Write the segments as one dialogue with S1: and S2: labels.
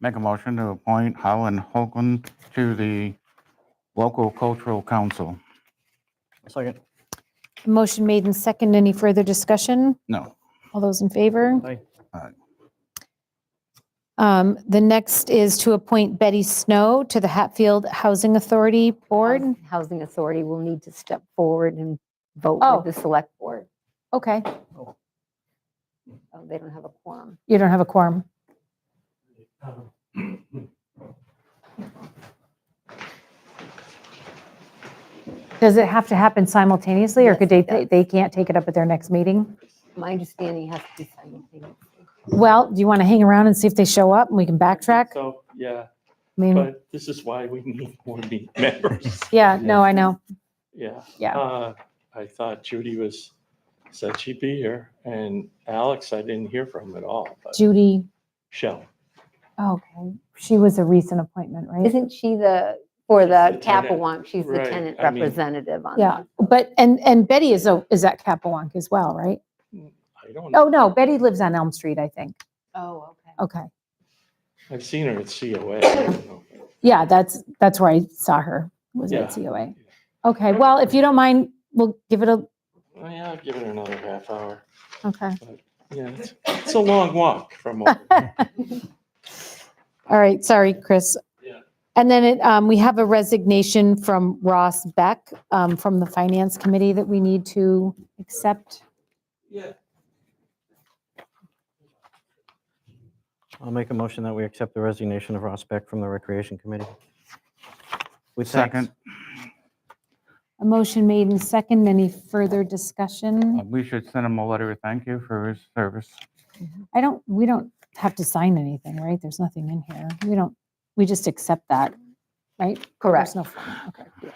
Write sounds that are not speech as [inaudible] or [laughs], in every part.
S1: Make a motion to appoint Holland Hogan to the local cultural council.
S2: Second.
S3: Motion made and second. Any further discussion?
S1: No,
S3: All those in favor?
S2: Aye.
S1: Aye.
S3: Um, The next is to appoint Betty Snow to the Hatfield Housing Authority Board.
S4: Housing- Housing Authority will need to step forward and vote
S3: Oh.
S4: with the select board.
S3: Okay,
S4: Oh, They don't have a quorum.
S3: you don't have a quorum. Does it have to happen simultaneously, or could they,
S4: Yes, it
S3: they
S4: does.
S3: they can't take it up at their next meeting?
S4: My understanding has to be simultaneous.
S3: Well, do you want to hang around and see if they show up and we can backtrack? I
S5: So, yeah,
S3: mean,
S5: but this is why we need more me- [laughs] members,
S3: yeah, no, I know.
S5: yeah.
S3: Yeah.
S5: Uh, I thought Judy was, said she'd be here, and Alex, I didn't hear from at all, but
S3: Judy,
S5: Shell.
S3: okay, she was a recent appointment, right?
S4: Isn't she the, for
S5: She's the
S4: the
S5: tenant.
S4: Capewalk, she's the
S5: Right,
S4: tenant
S5: I mean-
S4: representative on
S3: Yeah,
S4: that.
S3: but, and, and Betty is, a is at Capewalk as well, right?
S5: I don't
S3: Oh,
S5: know,
S3: no, Betty lives on Elm Street, I think.
S4: Oh, okay.
S3: Okay.
S5: I've seen her at COA. I don't know.
S3: Yeah, that's, that's where I saw her, was
S5: Yeah.
S3: at COA. Okay, well, if you don't mind, we'll give it a,
S5: Well, Yeah, I'll give it another half hour.
S3: okay.
S5: Yeah, it's- it's a long walk
S3: [laughs]
S5: from, over.
S3: All right, sorry, Chris.
S5: Yeah.
S3: And then it, um, we have a resignation from Ross Beck, um, from the Finance Committee that we need to accept.
S5: yeah,
S2: I'll make a motion that we accept the resignation of Ross Beck from the Recreation Committee. With thanks.
S1: second,
S3: A motion made in second. Any further discussion?
S1: uh, we should send him a letter of thank you for his service.
S3: I don't, we don't have to sign anything, right? There's nothing in here. We don't, we just accept that, right? There's
S4: Correct.
S3: no form, okay.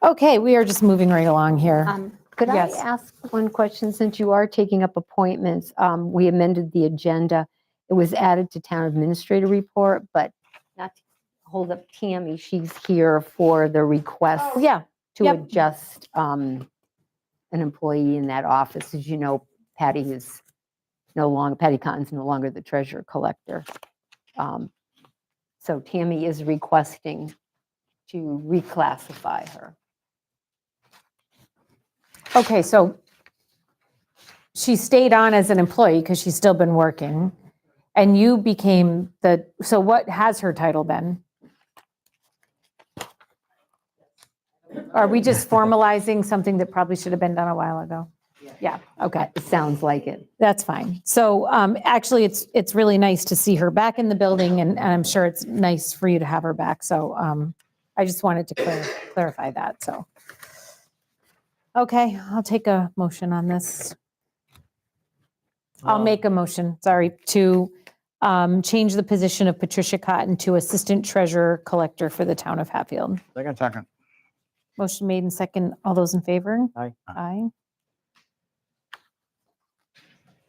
S3: Okay, we are just moving right along here.
S4: Um, Could I
S3: Yes.
S4: ask one question, since you are taking up appointments? um, We amended the agenda. It was added to town administrator report, but not to hold up Tammy, she's here for the request
S3: Oh, Yeah,
S4: to
S3: yep.
S4: adjust um, an employee in that office. As you know, Patty is no longer, Patty Cotton's no longer the treasurer collector. Um, So Tammy is requesting to reclassify her.
S3: okay, so she stayed on as an employee because she's still been working. And you became the, so what has her title been? Are we just formalizing something that probably should have been done a while ago? Yeah, okay.
S4: It sounds like it.
S3: That's fine. So um, actually, it's, it's really nice to see her back in the building, and and I'm sure it's nice for you to have her back. So um, I just wanted to clar- clarify that, so. Okay, I'll take a motion on this. I'll
S2: Um,
S3: make a motion, sorry, to um, change the position of Patricia Cotton to Assistant Treasurer Collector for the Town of Hatfield.
S2: Second.
S1: Second,
S3: Motion made and second. All those in favor?
S2: Aye.
S3: Aye.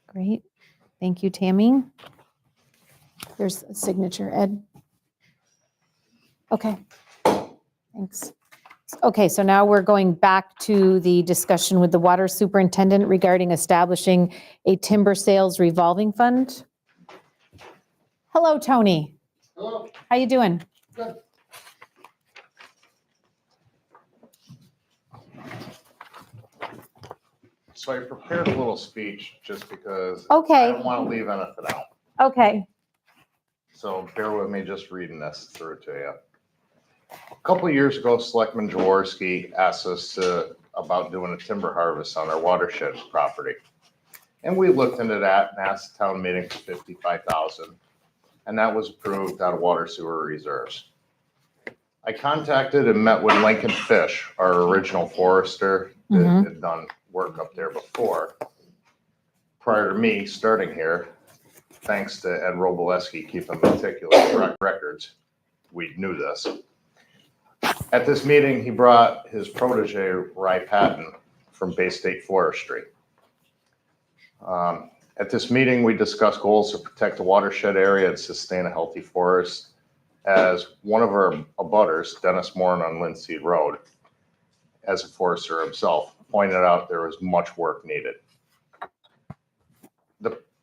S3: Great. Thank you, Tammy. There's a signature, Ed. Okay. Thanks. Okay, so now we're going back to the discussion with the water superintendent regarding establishing a timber sales revolving fund. Hello, Tony. Hello. How you doing?
S6: So I prepared a little speech just because I
S3: Okay,
S6: don't want to leave anything out.
S3: okay.
S6: So bear with me just reading this through to you. A couple of years ago, Selectman Jaworski asked us to, about doing a timber harvest on our watershed property. And we looked into that and asked the town meeting for fifty-five thousand, and that was approved out of water sewer reserves. I contacted and met with Lincoln Fish, our original forester that
S3: Mhm.
S6: had done work up there before, prior to me starting here, thanks to Ed Robleski keeping meticulous rec- records, we knew this. At this meeting, he brought his protege, Ry Patton, from Bay State Forestry. Um, At this meeting, we discussed goals to protect the watershed area and sustain a healthy forest. As one of our abutters, Dennis Moran on Lindsay Road, as a forester himself, pointed out there was much work needed.